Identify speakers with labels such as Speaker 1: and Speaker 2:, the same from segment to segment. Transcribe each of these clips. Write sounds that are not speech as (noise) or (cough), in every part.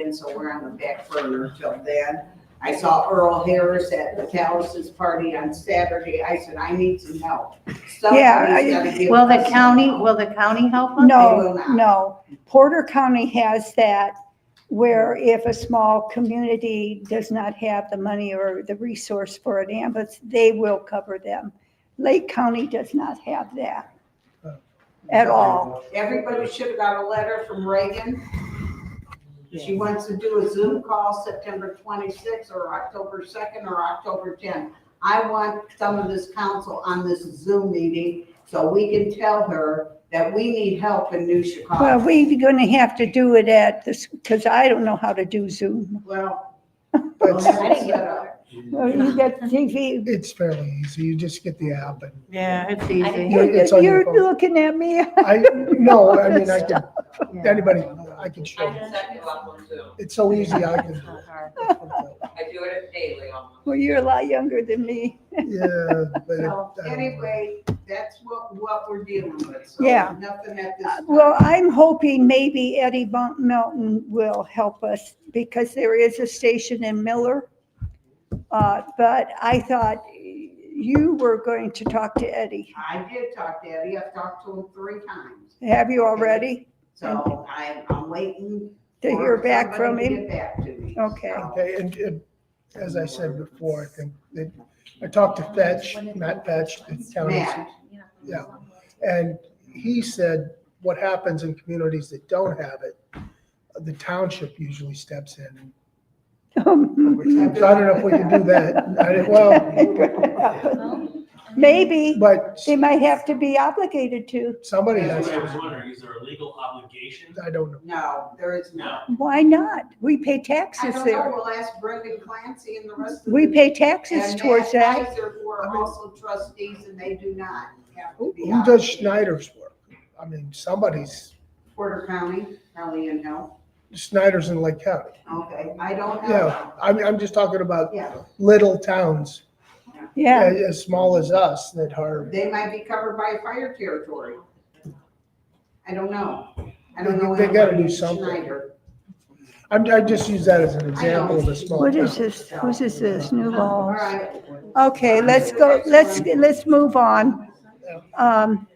Speaker 1: in, so we're on the back burner till then. I saw Earl Harris at Metallis's party on Saturday. I said, I need some help.
Speaker 2: Yeah,
Speaker 1: Somebody's
Speaker 2: I-
Speaker 1: gotta give
Speaker 3: Will the
Speaker 1: us some
Speaker 3: county,
Speaker 1: help.
Speaker 3: will the county help us?
Speaker 1: will
Speaker 2: No,
Speaker 1: not.
Speaker 2: no. Porter County has that where if a small community does not have the money or the resource for an ambulance, they will cover them. Lake County does not have that. At all.
Speaker 1: Everybody should have got a letter from Reagan. She wants to do a Zoom call September twenty-sixth or October second or October tenth. I want some of this council on this Zoom meeting so we can tell her that we need help in New
Speaker 2: Well,
Speaker 1: Chicago.
Speaker 2: we're gonna have to do it at this, because I don't know how to do Zoom.
Speaker 1: Well, we'll
Speaker 4: But
Speaker 1: have it set up.
Speaker 2: Well, You got TV,
Speaker 4: it's fairly easy. You just get the app and
Speaker 3: Yeah, it's
Speaker 2: you-
Speaker 3: easy.
Speaker 4: It's on your
Speaker 2: you're
Speaker 4: phone.
Speaker 2: looking at me. (laughs)
Speaker 4: I, no, I mean, I can, anybody, I can show
Speaker 5: I
Speaker 4: you.
Speaker 5: can set you up on Zoom.
Speaker 4: It's so easy, I can.
Speaker 3: It's not hard.
Speaker 1: (laughs)
Speaker 5: I do it daily almost.
Speaker 2: Well, you're a lot younger than me.
Speaker 4: Yeah, but. it-
Speaker 1: So anyway, that's what, what we're dealing with. So
Speaker 2: Yeah.
Speaker 1: Nothing at this.
Speaker 2: Uh,
Speaker 1: time.
Speaker 2: Well, I'm hoping maybe Eddie Mount- Mountain will help us because there is a station in Miller. Uh, But I thought you were going to talk to Eddie.
Speaker 1: I did talk to Eddie. I've talked to him three times.
Speaker 2: Have you already?
Speaker 1: So I, I'm waiting
Speaker 2: To hear back from him? Okay.
Speaker 4: Okay, and, and as I said before, I think that, I talked to Fetch, Matt Fetch, the county,
Speaker 1: Matt,
Speaker 4: yeah. And he said, what happens in communities that don't have it, the township usually steps in.
Speaker 2: (laughs)
Speaker 4: So I don't know if we can do that. I- Well,
Speaker 2: Maybe,
Speaker 4: but
Speaker 2: they might have to be obligated to.
Speaker 4: somebody has,
Speaker 6: That's what I was wondering, is there a legal obligation?
Speaker 4: I don't know.
Speaker 1: no, there is
Speaker 6: No.
Speaker 1: not.
Speaker 2: Why not? We pay
Speaker 1: I
Speaker 2: taxes
Speaker 1: don't know,
Speaker 2: there.
Speaker 1: we'll ask Brendan Clancy and the rest of.
Speaker 2: We
Speaker 1: the-
Speaker 2: pay taxes
Speaker 1: and
Speaker 2: towards
Speaker 1: Matt
Speaker 2: that.
Speaker 1: Kaiser, Who are also trustees and they do not have to be.
Speaker 4: Who does
Speaker 1: obligated.
Speaker 4: Schneider's work? I mean, somebody's,
Speaker 1: Porter County, probably in help.
Speaker 4: Schneider's in Lake County.
Speaker 1: Okay, I don't
Speaker 4: Yeah,
Speaker 1: know.
Speaker 4: I'm, I'm just talking about
Speaker 1: Yeah,
Speaker 4: little towns,
Speaker 2: Yeah.
Speaker 4: as, as small as us that are.
Speaker 1: they might be covered by fire territory. I don't know. I don't
Speaker 4: They-
Speaker 1: know.
Speaker 4: they gotta do
Speaker 1: anyone in
Speaker 4: something.
Speaker 1: Schneider.
Speaker 4: I'm, I just use that as an example of a small
Speaker 2: What
Speaker 4: town.
Speaker 2: is this? What is this? New
Speaker 1: All
Speaker 2: laws?
Speaker 1: right,
Speaker 2: Okay, let's go, let's, let's move on. Um,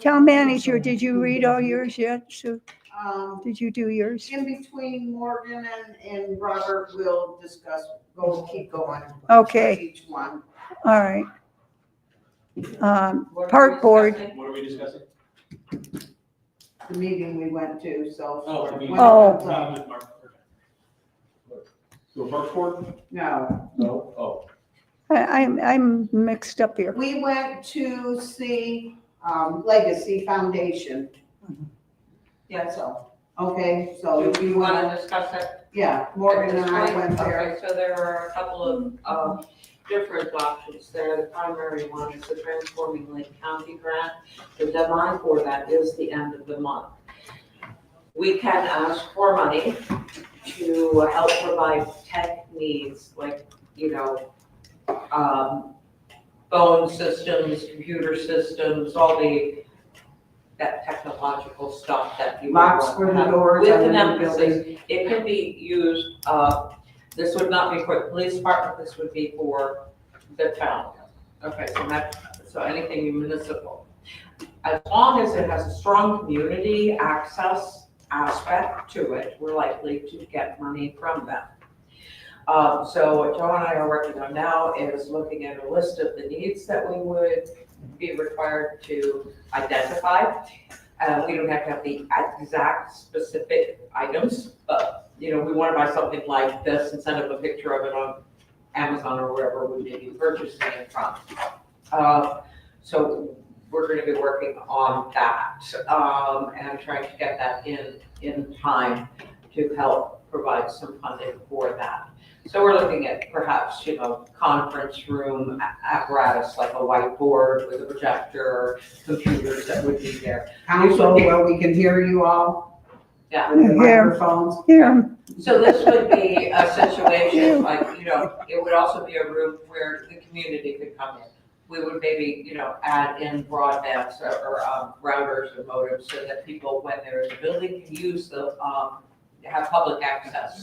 Speaker 2: Town manager, did you read all yours yet, Sue?
Speaker 1: um,
Speaker 2: Did you do yours?
Speaker 1: In between Morgan and, and Robert, we'll discuss, we'll keep going.
Speaker 2: Okay,
Speaker 1: Each one.
Speaker 2: all right. Um,
Speaker 5: What are we
Speaker 2: Park board.
Speaker 5: discussing?
Speaker 6: What are we discussing?
Speaker 1: The meeting we went to, so.
Speaker 6: Oh, the meeting.
Speaker 2: Oh.
Speaker 6: Meeting with Mark. To a park board?
Speaker 1: No,
Speaker 6: No. Oh.
Speaker 2: I, I'm, I'm mixed up here.
Speaker 1: we went to see, um, Legacy Foundation. Yeah, so, okay, so
Speaker 5: Do
Speaker 1: we
Speaker 5: you want
Speaker 1: wanna,
Speaker 5: to discuss that?
Speaker 1: yeah, Morgan and I went there.
Speaker 5: Okay, so there are a couple of, um, different options there. The primary one is the Transforming Lake County Grant. The deadline for that is the end of the month. We can ask for money to help provide tech needs, like, you know, um, phone systems, computer systems, all the, that technological stuff that you. would
Speaker 1: Locks
Speaker 5: want
Speaker 1: for
Speaker 5: to
Speaker 1: the
Speaker 5: have
Speaker 1: doors
Speaker 5: With
Speaker 1: on
Speaker 5: an
Speaker 1: the
Speaker 5: emphasis
Speaker 1: building.
Speaker 5: it can be used, uh, this would not be for the police department, this would be for the town. Okay, so that, so anything municipal. As long as it has a strong community access aspect to it, we're likely to get money from them. Um, so what Joe and I are working on now is looking at a list of the needs that we would be required to identify. Uh, we don't have to have the exact specific items, but, you know, we want to buy something like this and send them a picture of it on Amazon or wherever we may be purchasing it from. Uh, so we're gonna be working on that, um, and trying to get that in, in time to help provide some funding for that. So we're looking at perhaps, you know, conference room a- apparatus, like a whiteboard with a projector, computers that would be there.
Speaker 1: Council where we can hear you all.
Speaker 5: Yeah.
Speaker 1: With the
Speaker 2: Yeah.
Speaker 1: microphones.
Speaker 2: Here,
Speaker 5: So this would be a situation, like, you know, it would also be a room where the community could come in. We would maybe, you know, add in broadbands or- or um, routers and modems so that people, when they're in the building, can use the, um, have public access